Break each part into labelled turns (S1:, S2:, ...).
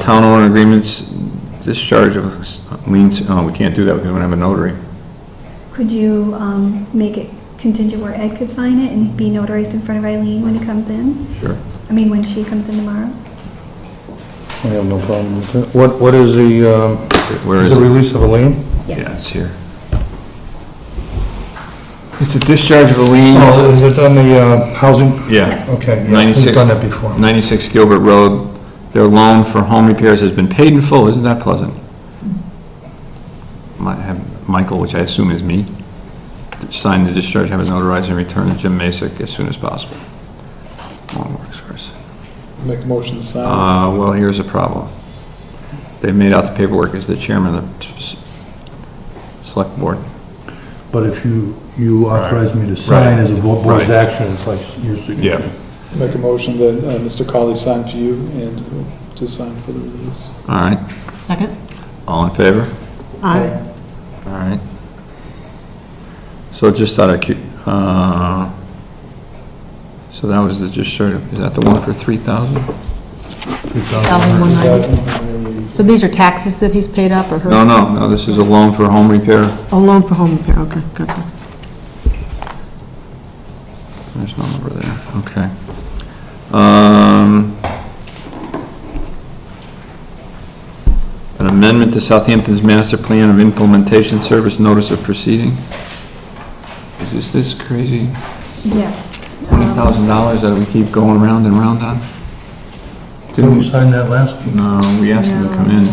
S1: Town owner agreements, discharge of liens, oh, we can't do that, because we don't have a notary.
S2: Could you um, make it contingent where Ed could sign it and be notarized in front of Eileen when he comes in?
S1: Sure.
S2: I mean, when she comes in tomorrow?
S3: I have no problem with that. What, what is the, um,
S1: Where
S3: is
S1: is
S3: the
S1: it?
S3: release of a lien?
S1: Yeah, it's here. It's a discharge of a lien.
S3: Oh, is it on the, uh, housing?
S1: Yeah.
S2: Yes.
S3: Okay, yeah, we've
S1: 96,
S3: done that before.
S1: 96 Gilbert Road, their loan for home repairs has been paid in full, isn't that pleasant? Might have Michael, which I assume is me, sign the discharge, have it notarized, and return to Jim Masick as soon as possible. Long works first.
S4: Make a motion to sign.
S1: Uh, well, here's a problem. They made out the paperwork as the chairman of the s- select board.
S3: But if you, you authorize me to sign as a bo- board's
S1: Right.
S3: action, it's like your signature.
S1: Yeah.
S4: Make a motion that uh, Mr. Colley sign for you and to sign for the release.
S1: All right,
S5: Second?
S1: all in favor? All right. So just out of, cu- uh, so that was the, just sort of, is that the one for 3,000?
S4: Aye.
S5: 1,190. So these are taxes that he's paid up or her?
S1: No, no, no, this is a loan for home repair.
S5: A loan for home repair, okay, gotcha.
S1: There's no number there, okay. Um, An amendment to Southampton's master plan of implementation service notice of proceeding. Is this this crazy
S2: Yes. Um,
S1: $20,000 that we keep going round and round on?
S3: Didn't we sign that last?
S1: No, we asked him to come in.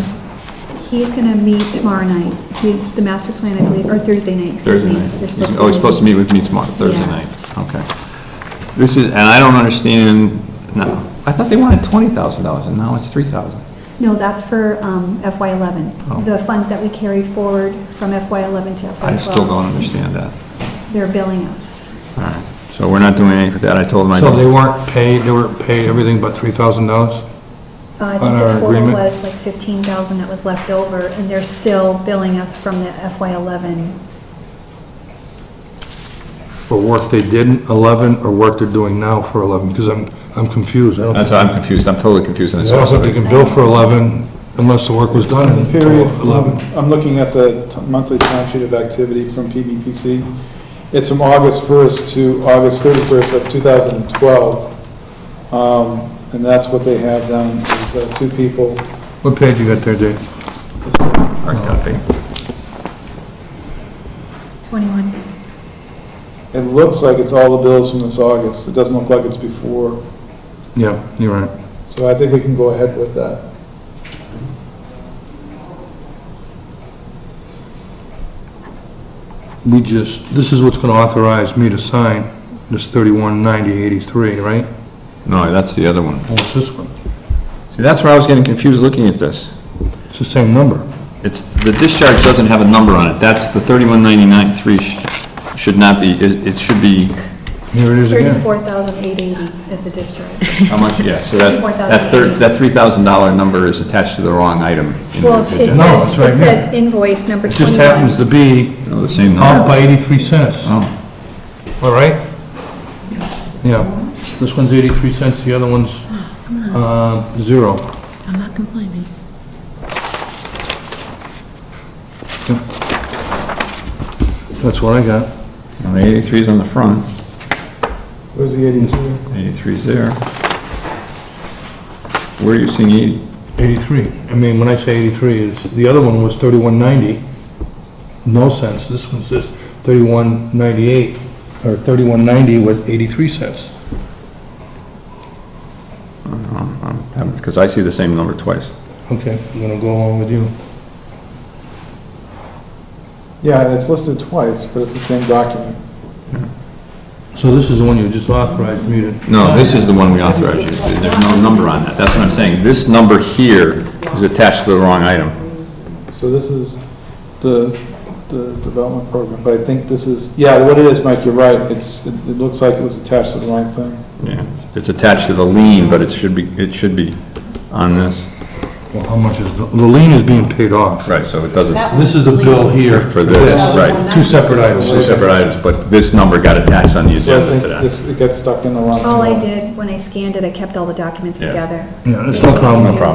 S2: He's gonna meet tomorrow night. He's the master plan, I believe, or Thursday night, excuse
S1: Thursday
S2: me.
S1: night.
S2: They're supposed
S1: Oh, he's supposed to meet with me tomorrow, Thursday
S2: Yeah.
S1: night. Okay. This is, and I don't understand, no, I thought they wanted twenty thousand dollars, and now it's three thousand.
S2: No, that's for FY eleven.
S1: Oh.
S2: The funds that we carry forward from FY eleven to FY twelve.
S1: I still don't understand that.
S2: They're billing us.
S1: All right, so we're not doing anything with that, I told him I
S3: So they
S1: don't.
S3: weren't paid, they weren't paid everything but three thousand dollars?
S2: Uh, I
S3: On
S2: think
S3: our
S2: the total
S3: agreement?
S2: was like fifteen thousand that was left over, and they're still billing us from the FY eleven.
S3: For work they didn't, eleven, or work they're doing now for eleven? Because I'm, I'm confused. I don't
S1: That's
S3: think-
S1: why I'm confused, I'm totally confused on
S3: I
S1: this.
S3: don't think you can bill for eleven unless the work was done in
S4: Period.
S3: eleven.
S4: I'm looking at the t- monthly timesheet of activity from PBPC. It's from August 1st to August 31st of 2012. Um, And that's what they have down, is uh, two people.
S3: What page you got there, Dave?
S1: Hard copy.
S2: Twenty-one.
S4: It looks like it's all the bills from this August. It doesn't look like it's before.
S3: Yeah, you're right.
S4: So I think we can go ahead with that.
S3: We just, this is what's gonna authorize me to sign this thirty-one ninety eighty-three, right?
S1: No, that's the other one.
S3: Well, it's this one.
S1: See, that's where I was getting confused looking at this.
S3: It's the same number.
S1: It's, the discharge doesn't have a number on it, that's the thirty-one ninety-nine three should not be, it it should be,
S3: Here it is again.
S2: Thirty-four thousand eight eighty is the discharge.
S1: how much, yeah, so that's, that thir-
S2: $34,080.
S1: that three thousand dollar number is attached to the wrong item. in the
S2: Well, it's- it
S1: agenda.
S3: No, it's
S2: says,
S3: right
S2: it
S3: here.
S2: says invoice number
S3: It
S2: twenty-one.
S3: just happens to be
S1: No, the same
S3: up
S1: number.
S3: by eighty-three cents,
S1: Oh.
S3: all right? Yeah, this one's eighty-three cents, the other one's, uh, zero.
S5: I'm not complaining.
S3: That's what I got.
S1: Well, the 83's on the front,
S4: Where's the 82?
S1: 83's there. Where are you seeing 80?
S3: Eighty-three. I mean, when I say eighty-three, is, the other one was thirty-one ninety, no cents. This one's just thirty-one ninety-eight, or thirty-one ninety with eighty-three cents.
S1: Because Um, I see the same number twice.
S3: Okay, I'm gonna go along with you.
S4: Yeah, it's listed twice, but it's the same document.
S3: So this is the one you just authorized me to...
S1: No, this is the one we authorized you. There's no number on that. That's what I'm saying. This number here is attached to the wrong item.
S4: So this is the, the development program, but I think this is, yeah, what it is, Mike, you're right, it's, it it looks like it was attached to the wrong thing.
S1: Yeah. It's attached to the lien, but it should be, it should be on this.
S3: Well, how much is, the the lien is being paid off.
S1: Right, so it doesn't,
S3: This is the bill here.
S1: For this, right.
S3: Two separate items.
S1: two separate items, but this number got attached on the
S4: So I
S1: agenda
S4: think
S1: to that.
S4: this, it got stuck in the wrong spot.
S2: All I did, when I scanned it, I kept all the documents
S1: Yeah.
S2: together.
S3: Yeah, it's no problem.
S1: No problem.